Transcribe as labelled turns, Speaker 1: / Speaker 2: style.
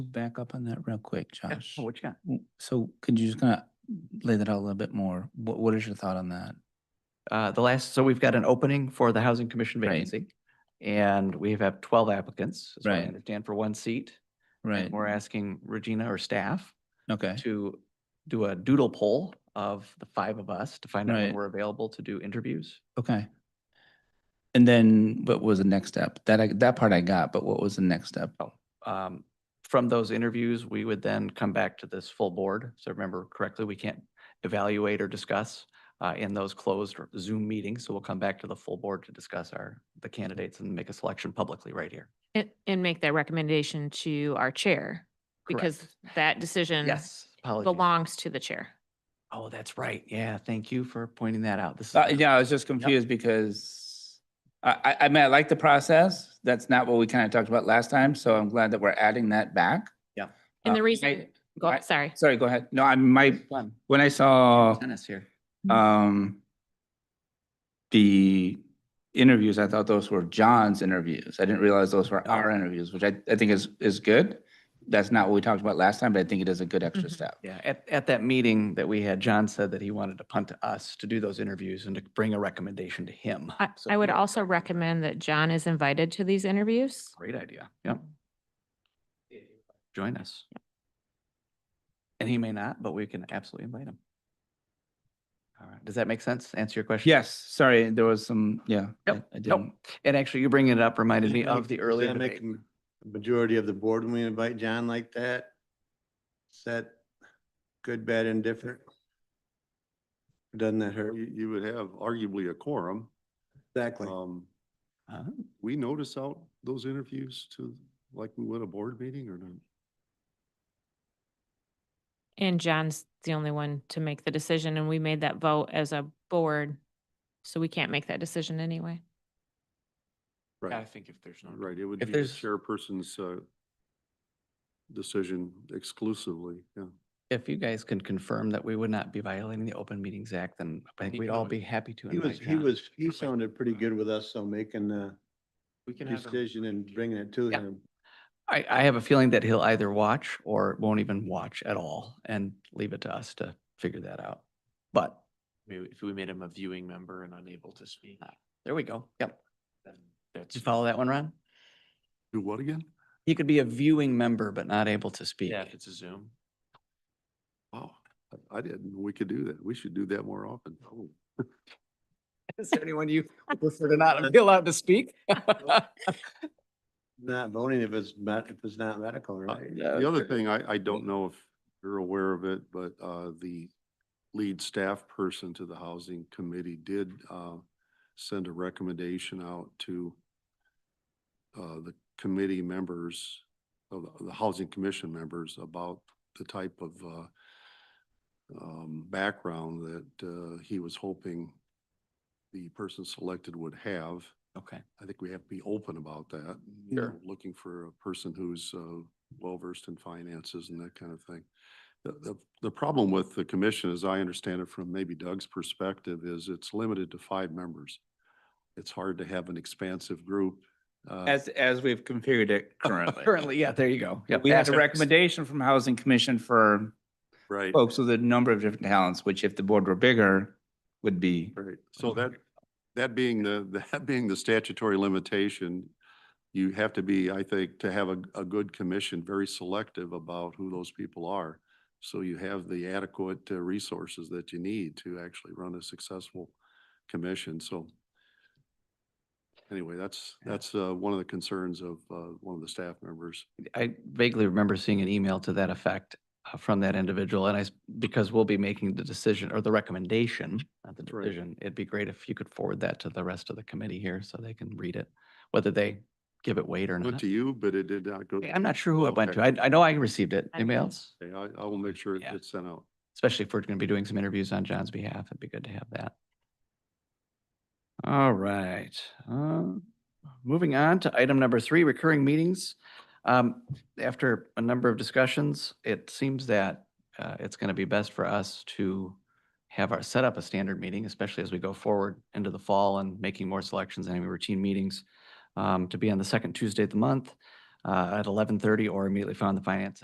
Speaker 1: Back up on that real quick,
Speaker 2: Yeah,
Speaker 1: Josh.
Speaker 2: What you got?
Speaker 1: W- So could you just kind of lay that out a little bit more? What, what is your thought on that?
Speaker 2: Uh, the last, so we've got an opening for the Housing Commission
Speaker 1: Right.
Speaker 2: vacancy. And we have twelve applicants, as I
Speaker 1: Right.
Speaker 2: understand, for one seat. and
Speaker 1: Right,
Speaker 2: We're asking Regina or staff
Speaker 1: okay,
Speaker 2: to do a doodle poll of the five of us to find out when
Speaker 1: Right.
Speaker 2: we're available to do interviews.
Speaker 1: okay. And then what was the next step? That, I that part I got, but what was the next step?
Speaker 2: Um, From those interviews, we would then come back to this full board. So remember correctly, we can't evaluate or discuss uh, in those closed Zoom meetings. So we'll come back to the full board to discuss our, the candidates and make a selection publicly right here.
Speaker 3: And, and make that recommendation to our chair, because
Speaker 2: Correct.
Speaker 3: that decision
Speaker 2: Yes, apologies.
Speaker 3: belongs to the chair.
Speaker 2: Oh, that's right. Yeah, thank you for pointing that out. This is.
Speaker 1: Uh,
Speaker 2: a-
Speaker 1: yeah, I was just confused because I, I, I mean, I like the process. That's not what we kind of talked about last time, so I'm glad that we're adding that back.
Speaker 2: Yeah.
Speaker 3: And the
Speaker 1: Uh,
Speaker 3: reason-
Speaker 1: I-
Speaker 3: Go-
Speaker 1: I-
Speaker 3: Sorry.
Speaker 1: Sorry, go ahead. No, I, my,
Speaker 2: Fun.
Speaker 1: when I saw
Speaker 2: Tennis here.
Speaker 1: um the interviews, I thought those were John's interviews. I didn't realize those were our
Speaker 2: Oh.
Speaker 1: interviews, which I, I think is, is good. That's not what we talked about last time, but I think it is a good extra
Speaker 3: Mhm.
Speaker 1: step.
Speaker 2: Yeah, at, at that meeting that we had, John said that he wanted to punt to us to do those interviews and to bring a recommendation to him.
Speaker 3: I,
Speaker 2: So
Speaker 3: I would
Speaker 2: yeah,
Speaker 3: also recommend that John is invited to these interviews.
Speaker 2: Great idea. Yep. Join us. And he may not, but we can absolutely invite him. All right. Does that make sense? Answer your question?
Speaker 1: Yes, sorry, there was some, yeah. I-
Speaker 2: Yep,
Speaker 1: I
Speaker 2: nope.
Speaker 1: didn't-
Speaker 2: And actually, you bringing it up reminded
Speaker 4: Does
Speaker 2: me
Speaker 4: that
Speaker 2: of
Speaker 4: make-
Speaker 2: the
Speaker 4: does
Speaker 2: earlier
Speaker 4: that make
Speaker 2: debate.
Speaker 4: m- the Majority of the board, when we invite John like that, is that good, bad, and different? Doesn't that hurt?
Speaker 5: You, you would have arguably a quorum.
Speaker 4: Exactly.
Speaker 5: Um,
Speaker 2: Uh,
Speaker 5: we notice out those interviews to, like we would a board meeting or not?
Speaker 3: And John's the only one to make the decision, and we made that vote as a board, so we can't make that decision anyway.
Speaker 5: Right,
Speaker 6: think if there's
Speaker 5: right. It would
Speaker 2: If
Speaker 5: be the
Speaker 2: there's-
Speaker 5: chairperson's, uh, decision exclusively, yeah.
Speaker 2: If you guys can confirm that we would not be violating the Open Meetings Act, then I think
Speaker 6: He
Speaker 2: we'd
Speaker 6: can
Speaker 2: all be
Speaker 6: always-
Speaker 2: happy to
Speaker 4: He
Speaker 2: invite
Speaker 4: was, he
Speaker 2: John.
Speaker 4: was, he sounded pretty good with us, so making the
Speaker 6: We can have. him.
Speaker 4: decision and bringing it to
Speaker 2: Yeah.
Speaker 4: him.
Speaker 2: I, I have a feeling that he'll either watch or won't even watch at all and leave it to us to figure that out. But
Speaker 6: Maybe if we made him a viewing member and unable to speak,
Speaker 2: there we go. Yep.
Speaker 6: then
Speaker 2: Did
Speaker 6: that's.
Speaker 2: you follow that one, Ron?
Speaker 5: Do what again?
Speaker 2: He could be a viewing member, but not able to speak.
Speaker 6: Yeah, if it's a Zoom.
Speaker 5: Wow, Oh, I- I didn't, know we could do that. We should do that more often.
Speaker 2: Is there anyone you prefer to not be allowed to speak?
Speaker 4: Not voting if it's not, if it's not medical,
Speaker 5: Uh,
Speaker 4: right?
Speaker 5: The other thing, I, I don't know if you're aware of it, but uh, the lead staff person to the housing committee did uh, send a recommendation out to uh, the committee members, of the- the housing commission members about the type of uh, um, background that uh, he was hoping the person selected would have.
Speaker 2: Okay.
Speaker 5: I think we have to be open about that. you
Speaker 2: Sure.
Speaker 5: know, Looking for a person who's uh, well-versed in finances and that kind of thing. The, the, the problem with the commission, as I understand it from maybe Doug's perspective, is it's limited to five members. It's hard to have an expansive group. uh,
Speaker 1: As, as we've configured it currently.
Speaker 2: Currently, yeah, there you go. Yep,
Speaker 1: We had a
Speaker 2: asterisk.
Speaker 1: recommendation from Housing Commission for
Speaker 5: Right,
Speaker 1: folks with a number of different talents, which if the board were bigger, would be.
Speaker 5: right. So that, that being the, that being the statutory limitation, you have to be, I think, to have a, a good commission, very selective about who those people are. So you have the adequate uh, resources that you need to actually run a successful commission, so. Anyway, that's,
Speaker 2: Yeah.
Speaker 5: that's, uh, one of the concerns of, uh, one of the staff members.
Speaker 2: I vaguely remember seeing an email to that effect uh, from that individual, and I, s- because we'll be making the decision or the recommendation, not the
Speaker 5: Right.
Speaker 2: decision, it'd be great if you could forward that to the rest of the committee here so they can read it, whether they give it weight or
Speaker 5: Went
Speaker 2: not.
Speaker 5: to you, but it did not go.
Speaker 2: Okay, I'm not sure who it went to.
Speaker 5: Okay.
Speaker 2: I, I know I received it.
Speaker 3: I
Speaker 2: Anybody
Speaker 3: didn't.
Speaker 2: else?
Speaker 5: Okay, I, I will make sure it
Speaker 2: Yeah.
Speaker 5: gets sent out.
Speaker 2: especially if we're going to be doing some interviews on John's behalf, it'd be good to have that. All right. um, Moving on to item number three, recurring meetings. Um, After a number of discussions, it seems that uh, it's going to be best for us to have our, set up a standard meeting, especially as we go forward into the fall and making more selections and having routine meetings um, to be on the second Tuesday of the month. uh, at eleven thirty or immediately following the finance